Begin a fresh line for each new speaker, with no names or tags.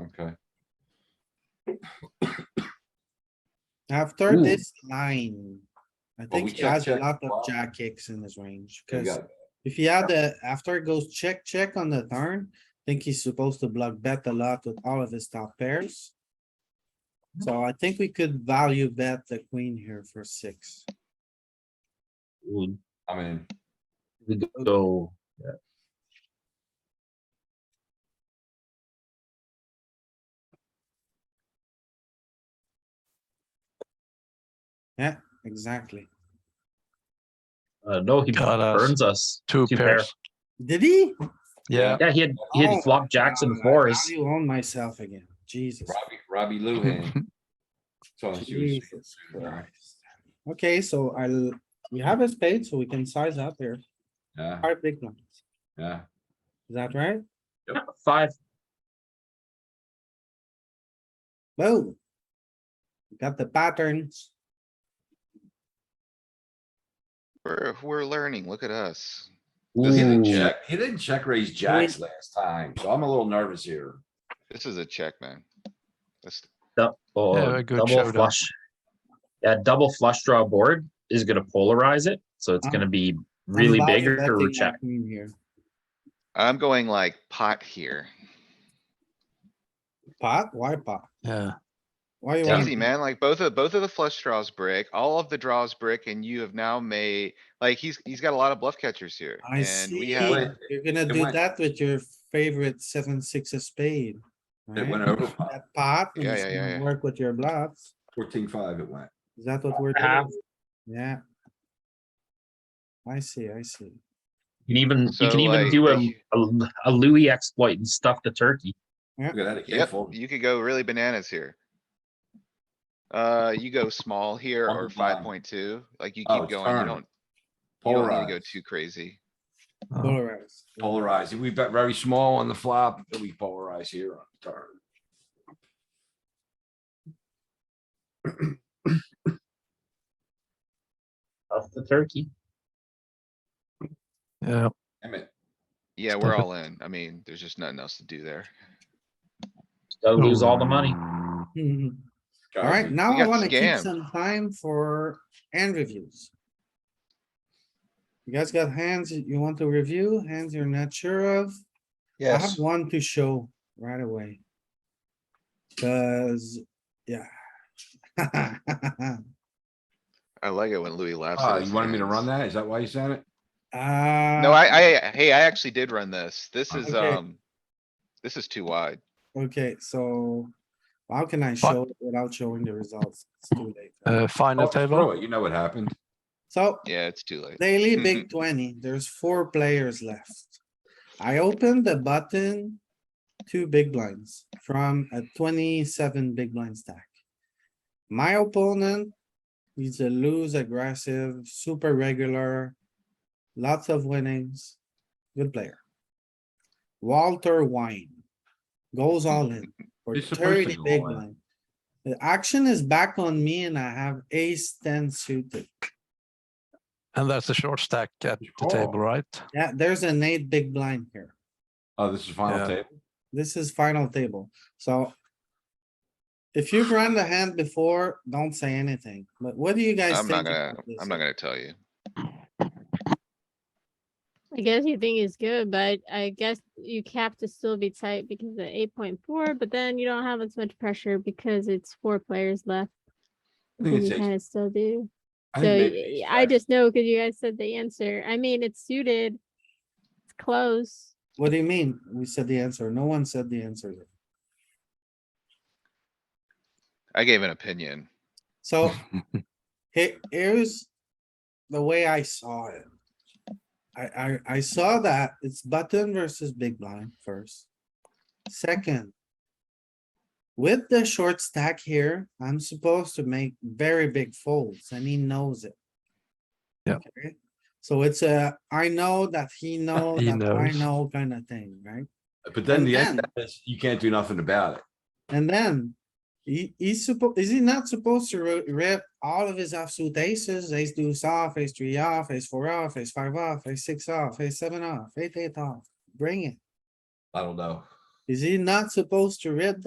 okay.
After
Ooh.
this line, I think
Hmm. we
he
check,
has a
check.
lot
Wow.
of jack kicks in his range,
You
cuz
got-
if he had the, after it goes check, check on the turn, I think he's supposed to block bet a lot with all of his top pairs. So I think we could value bet the queen here for six.
would
I mean,
would go.
Exactly.
Uh, no, he
Got us.
burns us.
Two
Two
pairs.
Did he?
Yeah.
Yeah, he had he
Oh,
had flop jacks and
I
fours.
value on myself again. Jesus.
Robbie, Robbie Lou hand. So she
Jesus
was.
Christ. Okay, so I, will we have a spade, so we can size up here.
Yeah,
Five big ones.
yeah.
Is that right?
Yeah, Five.
Boom. Got the patterns.
We're, we're learning. Look at us.
Cause he didn't
Ooh.
check, he didn't check raise jacks last time, so I'm a little nervous here.
This is a check, man. This,
Du- oh,
Yeah, a good
double
showdown.
flush. Yeah, double flush draw board is gonna polarize it, so it's
Ah.
gonna be
I'm
really
value
big or
betting my
check.
queen here.
I'm going like pot here.
Pot? Why pot?
Yeah.
Why you
It's
want?
Easy, man. Like both of, both of the flush draws brick, all of the draws brick, and you have now made, like, he's, he's got a lot of bluff catchers here.
I
And we uh,
see.
have,
Wait.
You're gonna
It
do
went-
that with your favorite seven, six of spade.
It
right?
went over five,
That pot, and
Yeah,
it's
yeah, yeah,
gonna
yeah.
work with your bluffs.
fourteen five it went.
Is that what we're doing?
Half.
Yeah. I see, I see.
You can even you
So,
can even
like,
do a,
they-
a a Louis exploit and stuff the turkey.
Look at that, it can't
yep,
fold.
you could go really bananas here. Uh, you go small here
One
or
big blind.
five point two, like you
Oh,
keep
it's
going, you
turn.
don't, you don't need to go
Polarize,
too crazy.
Oh,
Polarized.
polarize. We bet very small on the flop, but we polarize here on the turn.
Stuff the turkey.
Yeah.
Damn it.
Yeah,
Stuff
we're
it.
all in. I mean, there's just nothing else to do there.
Gotta lose all the money.
Mhm.
Guys,
Alright,
we-
now
Uh, we
I
got
wanna keep
scammed.
some time for hand reviews. You guys got hands that you want to review, hands you're not sure of? I have one to show right away. Cuz, yeah.
I like it when Louis laughs. at
Ah,
his
you wanted me to
hands.
run that? Is that why you said it?
No, I, I, hey, I actually did run this. This is,
Uh, Okay.
um, this is too wide.
Okay, so how can I show it without showing the results? It's too late.
Uh, final
Oh,
table.
throw it, You know what happened?
So
Yeah, it's too late.
daily big
Mm-hmm.
twenty, there's four players left. I opened the button, two big blinds from a twenty-seven big blind stack. My opponent, he's a loose aggressive, super regular, lots of winnings, good player. Walter Wine goes all in for
He's supposed to
thirty
go
big
all in.
blind. The action is back on me and I have ace ten suited.
And that's the short stack at the
Oh.
table, right?
Yeah, there's an eight big blind here.
Oh, this is final
Yeah.
table?
This is final table, so. If you've run the hand before, don't say anything, but what do you guys
I'm
think?
not gonna,
about this?
I'm not gonna tell you.
I guess you think it's good, but I guess you have to still be tight because of eight point four, but then you don't have as much pressure because it's four players left.
I think
and
it's
You
ace-
kinda still do.
I
So
think maybe ace
y- I
jack.
just know because you guys said the answer. I mean, it's suited. It's close.
What do you mean? We said the answer. No one said the answer. yet.
I gave an opinion.
So
Oh.
he- here's the way I saw it. I, I, I saw that it's button versus big blind first. Second. With the short stack here, I'm supposed to make very big folds and he knows it.
Yeah.
Okay, So it's a, I know that he knows,
He
that I
knows.
know kind of thing, right?
But then
And
the end
then-
is you can't do nothing about it.
And then he, he's supposed, is he not supposed to ri- rip all of his offsuit aces, ace deuce off, ace three off, ace four off, ace five off, ace six off, ace seven off, eight eight off? Bring it.
I don't know.
Is he not supposed to rip